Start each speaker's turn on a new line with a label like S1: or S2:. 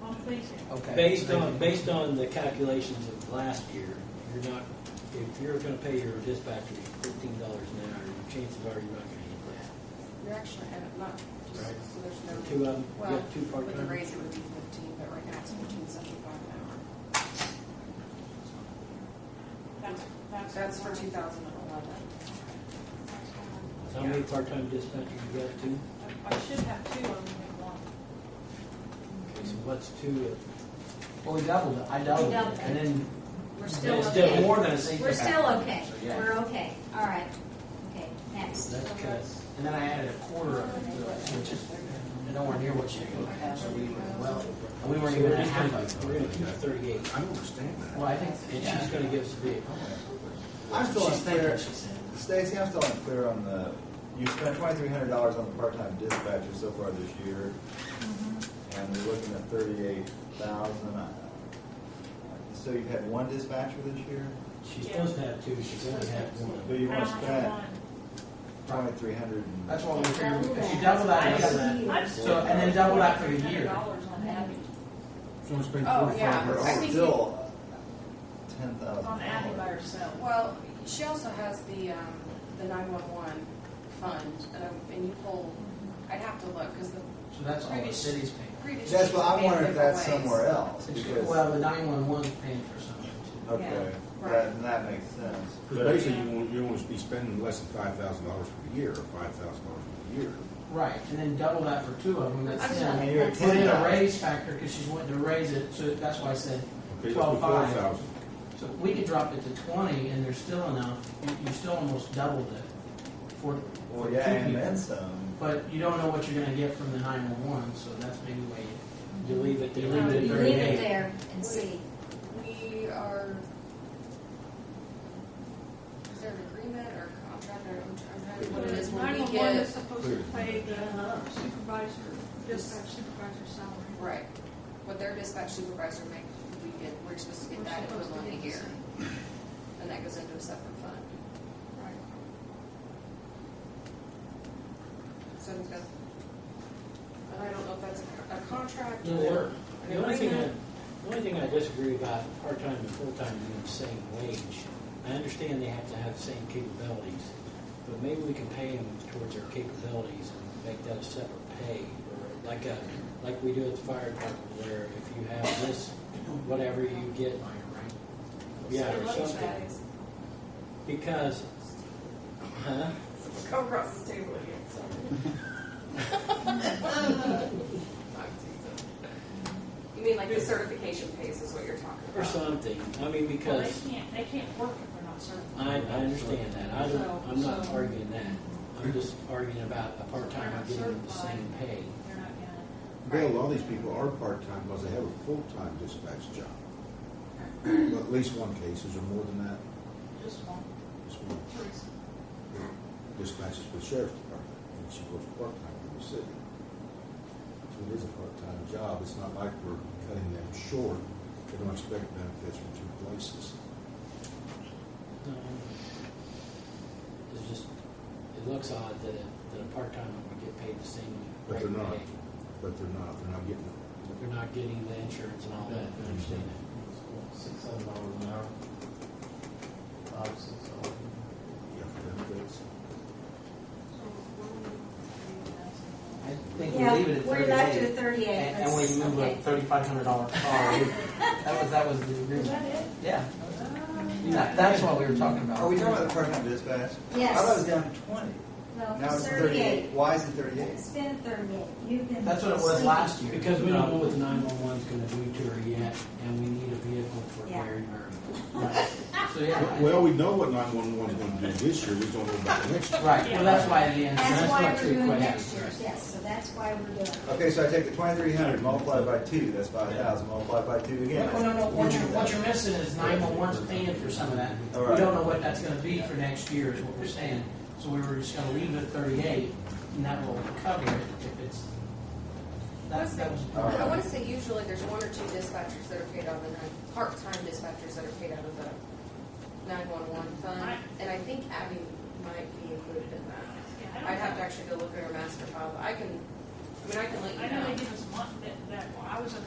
S1: completion.
S2: Okay.
S3: Based on, based on the calculations of last year, you're not, if you're gonna pay your dispatcher fifteen dollars an hour, your chances are you're not gonna
S4: You're actually at a month, just
S3: Right.
S4: so there's
S3: hit that.
S4: no.
S3: Two of them, you
S4: Well,
S3: got two
S4: with the
S3: part-time.
S4: raise, it would be fifteen, but right now it's fourteen seventy-five an hour.
S1: That's, that's.
S4: That's for two thousand and eleven.
S3: How many part-time dispatchers you got, two?
S1: I should have two, I only have one.
S3: Okay, so what's two
S2: Well, we doubled it, I doubled
S5: We doubled
S2: it,
S5: it.
S2: and then
S5: We're
S3: Yeah,
S5: still
S3: it's
S2: did
S5: okay.
S2: more than a safety
S5: We're
S2: factor.
S5: still okay.
S2: So, yeah.
S5: We're okay. All right. Okay,
S3: of,
S5: next.
S3: that's cuts.
S2: And then I added a quarter of it, to it, which is nowhere near what you had, so we were well, and we weren't even at half of
S3: We're
S2: it.
S3: gonna keep thirty-eight,
S6: I don't understand that.
S2: Well, I think,
S3: and she's gonna give us a bid.
S7: I'm still
S2: She's thinking,
S7: unclear,
S2: she said.
S7: Stacy, I'm still unclear on the, you spent twenty-three hundred dollars on the part-time dispatcher so far this year, and we're looking at thirty-eight thousand. So you've had one dispatcher this year,
S3: She's supposed to have two, she's only had one.
S7: but you
S1: I
S7: want to
S1: only have
S7: spend
S1: one.
S7: twenty-three hundred and.
S2: That's what we figured, if she doubled that,
S1: Double
S2: again,
S1: I'm
S2: So, and then double that for the year.
S1: Dollars on average,
S6: So it's been
S4: Oh,
S6: forty-five
S4: yeah.
S6: years.
S4: I
S7: We're
S4: think
S7: still ten thousand.
S1: on average by herself.
S4: Well, she also has the, um, the nine-one-one fund, um, and you pull, I'd have to look, because the
S2: so that's all the city's paying.
S4: previous.
S7: That's what I'm
S4: chief made
S7: wondering if
S4: different
S7: that's
S4: ways.
S7: somewhere else, because,
S2: Well, the nine-one-one's paying for something too.
S7: okay,
S4: right.
S7: that, that makes sense.
S6: Because
S7: But
S6: basically, you want, you want to be spending less than five thousand dollars per year, or five thousand dollars per year.
S2: Right, and then double that for two of them, that's
S4: I'm
S2: ten.
S7: I mean, you're at
S2: Put
S7: ten
S2: in a
S7: thousand.
S2: raise factor, because she's wanting to raise it, so that's why I said,
S6: Okay, let's
S2: Twelve
S6: put four
S2: five.
S6: thousand.
S2: so we could drop it to twenty, and there's still enough, you, you still almost doubled it for, for
S7: Well,
S2: two
S7: yeah, and then
S2: people.
S7: some.
S2: But you don't know what you're gonna get from the nine-one-one, so that's maybe why you,
S3: You leave it,
S2: you
S3: there.
S2: leave it
S5: You
S2: at
S5: leave it
S2: thirty-eight.
S5: there and see.
S4: We are, is there an agreement or contract or, I'm trying to, what it is when we
S1: 911 is
S4: get,
S1: supposed to pay the supervisor, dispatch supervisor salary.
S4: right, what their dispatch supervisor make, we get, we're supposed to get
S1: We're
S4: that
S1: supposed to
S4: equivalent
S1: get
S4: a
S1: the
S4: year.
S1: same.
S4: And that goes into a separate fund.
S1: Right.
S4: So I think that's, and I don't know if that's a, a contract
S3: No,
S4: or
S3: The
S4: an
S3: only thing, I-
S4: agreement.
S3: the only thing I disagree about part-time and full-time being the same wage, I understand they have to have the same capabilities, but maybe we can pay them towards their capabilities and make that a separate pay, or like a, like we do at the fire department, where if you have this, whatever you get, yeah, or
S4: So
S3: something.
S4: that is-
S3: Because, huh?
S4: Come across the table again, sorry. I'm teasing. You mean like the certification pays is what you're talking
S3: Or
S4: about?
S3: something, I
S1: Well,
S3: mean,
S1: they
S3: because.
S1: can't, they can't work if they're not certified.
S3: I, I understand that, I
S1: So-
S3: don't, I'm not
S1: so-
S3: arguing that, I'm just arguing about a part-timer getting the same pay.
S1: They're not gonna.
S6: Bill, all these people are part-time because they have a full-time dispatch job. Well, At least one case, is there more than that?
S1: Just one,
S6: Just one
S1: Teresa.
S6: dispatches for the sheriff's department, and she works part-time for the city. So it is a part-time job, it's not like we're cutting them short, they don't expect benefits from two places.
S3: No, It's just, it looks odd that, a- that a part-timer would get paid the same rate
S6: But
S3: of
S6: they're not.
S3: pay.
S6: But they're not, they're not getting
S3: They're not getting the insurance and all that, I understand that.
S8: Six hundred dollars an hour. Five, six dollars.
S6: yeah, benefits.
S2: I think we
S5: Yeah,
S2: leave it at
S5: we're left at
S2: thirty-eight.
S5: thirty-eight.
S2: And and we
S5: That's-
S2: move a
S5: okay.
S2: thirty-five hundred dollar car, We- that was, that was the
S1: Is
S2: agreement.
S1: that it?
S2: Yeah, that, that's what we were talking about.
S7: Are we talking about the part-time dispatch? I thought it
S5: Yes.
S7: was down to twenty. Now
S5: No,
S7: it's
S5: thirty-eight.
S7: thirty-eight. Why is it thirty-eight?
S5: It's been thirty-eight. You've been.
S2: That's what it was
S5: sleeping.
S2: last year.
S3: Because we don't know what the nine-one-one's gonna do to her yet, and we need a vehicle for
S5: Yeah.
S3: Mary Mary.
S2: Right. So, yeah.
S6: Well, we know what nine-one-one's gonna do this year, we don't know about the next year.
S2: Right, well, that's why it ends,
S5: That's
S2: that's
S5: why
S2: what
S5: we're doing
S2: two
S5: next
S2: questions.
S5: year, yes, so that's why we're doing. it.
S7: Okay, so I take the twenty-three hundred, multiply it by two, that's five thousand, multiply it by two again.
S5: oh
S2: No, no, no, what you're, what
S7: All
S2: you're missing is nine-one-one's paying for some of that.
S7: All
S2: We
S7: right.
S2: don't know what that's gonna be for next year is what we're saying. So we were just gonna leave it at thirty-eight and that will cover it if it's, that's, that was.
S7: All
S4: I wanna say usually there's one or two dispatchers that are paid out of the nine, part-time dispatchers that are paid out of the nine-one-one fund.
S1: Right.
S4: And I think Abby might be included in that. I'd have to actually go look at her master file, but I can, I mean, I can let you
S1: I
S4: know.
S1: know they give us one, that, that, well, I was at